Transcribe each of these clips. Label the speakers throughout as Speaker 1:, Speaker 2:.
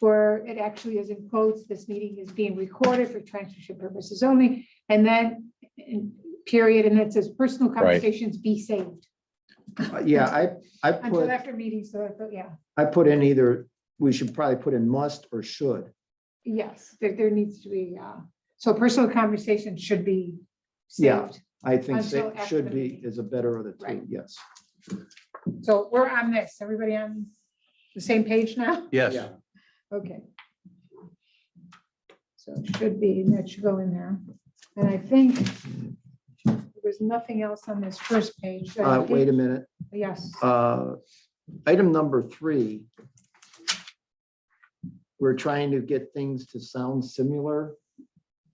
Speaker 1: where it actually is in quotes, this meeting is being recorded for transcription purposes only, and then and period, and it says personal conversations be saved
Speaker 2: Uh, Yeah, I, I
Speaker 1: until
Speaker 2: put,
Speaker 1: after meetings, so, I thought, yeah,
Speaker 2: I put in either, we should probably put in must or should.
Speaker 1: yes, there, there needs to be, uh, so personal conversation should be
Speaker 2: Yeah.
Speaker 1: saved.
Speaker 2: I think
Speaker 1: Until
Speaker 2: sa-
Speaker 1: after
Speaker 2: should
Speaker 1: the
Speaker 2: be
Speaker 1: meeting.
Speaker 2: is a better of the two,
Speaker 1: Right.
Speaker 2: yes.
Speaker 1: So we're on this, everybody on the same page now?
Speaker 3: Yes,
Speaker 2: Yeah.
Speaker 1: Okay. So it should be, that should go in there. And I think there was nothing else on this first page. that I
Speaker 2: Uh, wait a
Speaker 1: did-
Speaker 2: minute,
Speaker 1: Yes,
Speaker 2: uh, item number three. We're trying to get things to sound similar,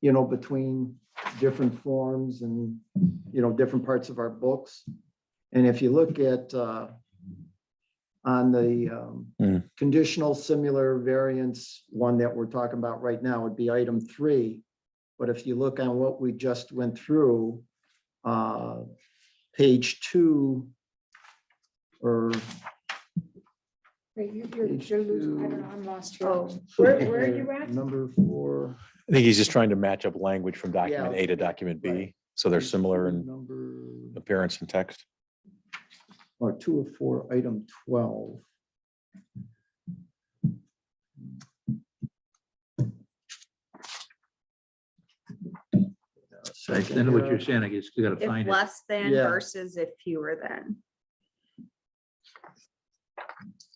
Speaker 2: you know, between different forms and, you know, different parts of our books. And if you look at, uh, on the,
Speaker 3: Mm.
Speaker 2: um, conditional similar variance, one that we're talking about right now would be item three. But if you look on what we just went through, uh, page two, or
Speaker 1: Wait, you- you're,
Speaker 2: Page
Speaker 1: you're losing, I don't
Speaker 2: two.
Speaker 1: know, I'm lost here.
Speaker 2: Oh.
Speaker 1: Where, where are you at?
Speaker 2: Number four.
Speaker 3: I think he's just trying to match up language from document
Speaker 2: Yeah.
Speaker 3: A to document B,
Speaker 2: Right. Mm-hmm.
Speaker 3: so they're similar in
Speaker 2: Number,
Speaker 3: appearance and text.
Speaker 2: or two of four, item twelve.
Speaker 4: I know what you're saying, I guess you gotta
Speaker 5: If
Speaker 4: find it.
Speaker 5: less than
Speaker 2: Yeah.
Speaker 5: versus if fewer than.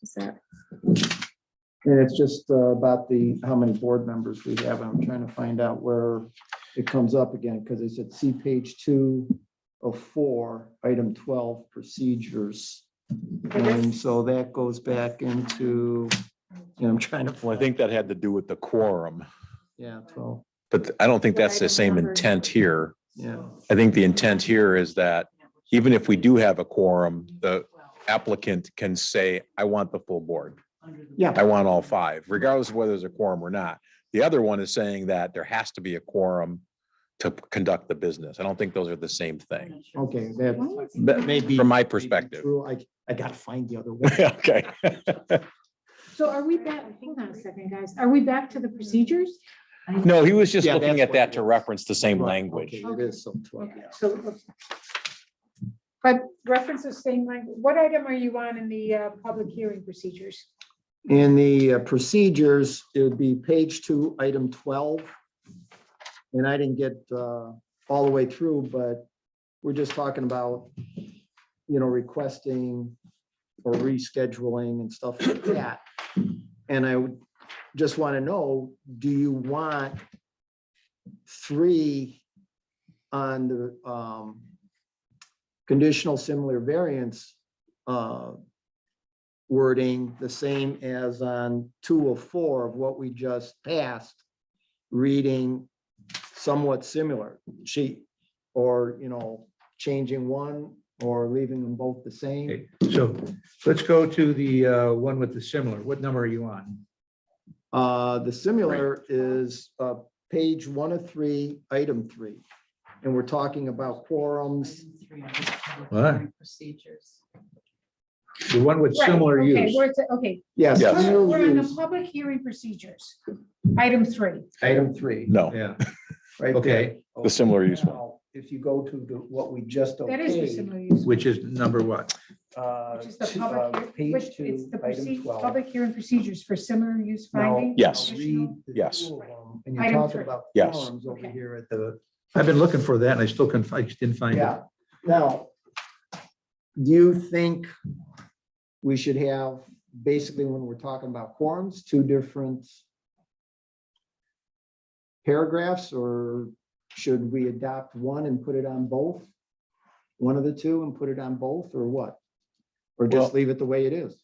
Speaker 5: Is that,
Speaker 2: And it's just uh, about the, how many board members we have. I'm trying to find out where it comes up again, because they said see page two of four, item twelve, procedures. And so that goes back into, and I'm trying to.
Speaker 3: Well, I think that had to do with the quorum,
Speaker 2: Yeah, twelve,
Speaker 3: but I don't think that's the same intent here.
Speaker 2: yeah.
Speaker 3: I think the intent here is that even if we do have a quorum, the applicant can say, I want the full board.
Speaker 2: Yeah.
Speaker 3: I want all five, regardless of whether there's a quorum or not. The other one is saying that there has to be a quorum to conduct the business. I don't think those are the same thing,
Speaker 2: Okay, that.
Speaker 3: But
Speaker 2: maybe.
Speaker 3: from my perspective.
Speaker 2: True, I, I gotta find the other one.
Speaker 3: Okay.
Speaker 1: So are we back, hold on a second, guys, are we back to the procedures?
Speaker 3: No, he was just
Speaker 2: Yeah,
Speaker 3: looking
Speaker 2: that's
Speaker 3: at
Speaker 2: what
Speaker 3: that
Speaker 2: it
Speaker 3: to
Speaker 2: is.
Speaker 3: reference the same
Speaker 2: Right,
Speaker 3: language.
Speaker 2: okay, It is some twelve.
Speaker 1: Okay, So. But reference the same language, what item are you on in the, uh, public hearing procedures?
Speaker 2: In the uh, procedures, it would be page two, item twelve. And I didn't get uh, all the way through, but we're just talking about, you know, requesting or rescheduling and stuff like that. And I would just want to know, do you want three on the um, conditional similar variance uh, wording the same as on two of four of what we just passed, reading somewhat similar, she, or, you know, changing one or leaving them both the same.
Speaker 4: Okay, So let's go to the uh, one with the similar. What number are you on?
Speaker 2: Uh, the similar is, uh, page one of three, item three. And we're talking about quorums.
Speaker 4: What? The one with
Speaker 1: Right,
Speaker 4: similar
Speaker 1: okay,
Speaker 4: use.
Speaker 1: where it's at- Okay,
Speaker 2: Yes.
Speaker 3: Yes.
Speaker 1: we're we're on the
Speaker 2: use,
Speaker 1: public hearing procedures, item three.
Speaker 2: Item three.
Speaker 3: No,
Speaker 4: Yeah,
Speaker 2: right
Speaker 4: okay,
Speaker 2: there.
Speaker 3: the similar use one.
Speaker 2: Now, If you go to the, what we just.
Speaker 1: That is the
Speaker 2: okayed,
Speaker 1: similar use.
Speaker 4: which is number what?
Speaker 2: uh,
Speaker 1: Which is the
Speaker 2: to-
Speaker 1: public,
Speaker 2: uh,
Speaker 1: hear- which
Speaker 2: Page
Speaker 1: it's
Speaker 2: two,
Speaker 1: the
Speaker 2: item
Speaker 1: proceed,
Speaker 2: twelve.
Speaker 1: public hearing procedures for similar use
Speaker 2: Now,
Speaker 1: finding.
Speaker 3: Yes.
Speaker 1: additional-
Speaker 2: read the
Speaker 3: Yes.
Speaker 2: two of them, And you're
Speaker 1: Item
Speaker 2: talking
Speaker 1: three.
Speaker 2: about.
Speaker 3: Yes.
Speaker 2: forums Over
Speaker 1: Okay.
Speaker 2: here at the,
Speaker 4: I've been looking for that and I still couldn't, fi- I just didn't find it.
Speaker 2: yeah. Now, do you think we should have, basically, when we're talking about quorums, two different paragraphs, or should we adopt one and put it on both? One of the two and put it on both, or what? Or just
Speaker 3: Well-
Speaker 2: leave it the way it is?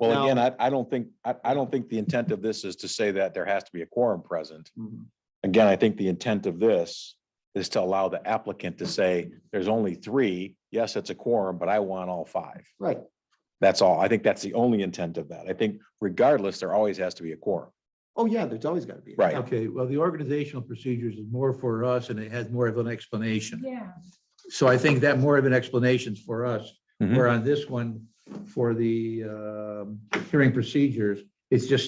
Speaker 3: Well, again, I, I don't think, I, I don't think the intent of this is to say that there has to be a quorum present.
Speaker 2: Mm-hmm.
Speaker 3: Again, I think the intent of this is to allow the applicant to say, there's only three. Yes, it's a quorum, but I want all five.
Speaker 2: Right.
Speaker 3: That's all. I think that's the only intent of that. I think regardless, there always has to be a quorum.
Speaker 2: Oh, yeah, there's always got to be.
Speaker 3: Right.
Speaker 4: Okay, well, the organizational procedures is more for us and it has more of an explanation.
Speaker 1: Yeah,
Speaker 4: So I think that more of an explanation's for us.
Speaker 3: Mhm.
Speaker 4: Where on this one, for the um, hearing procedures, it's just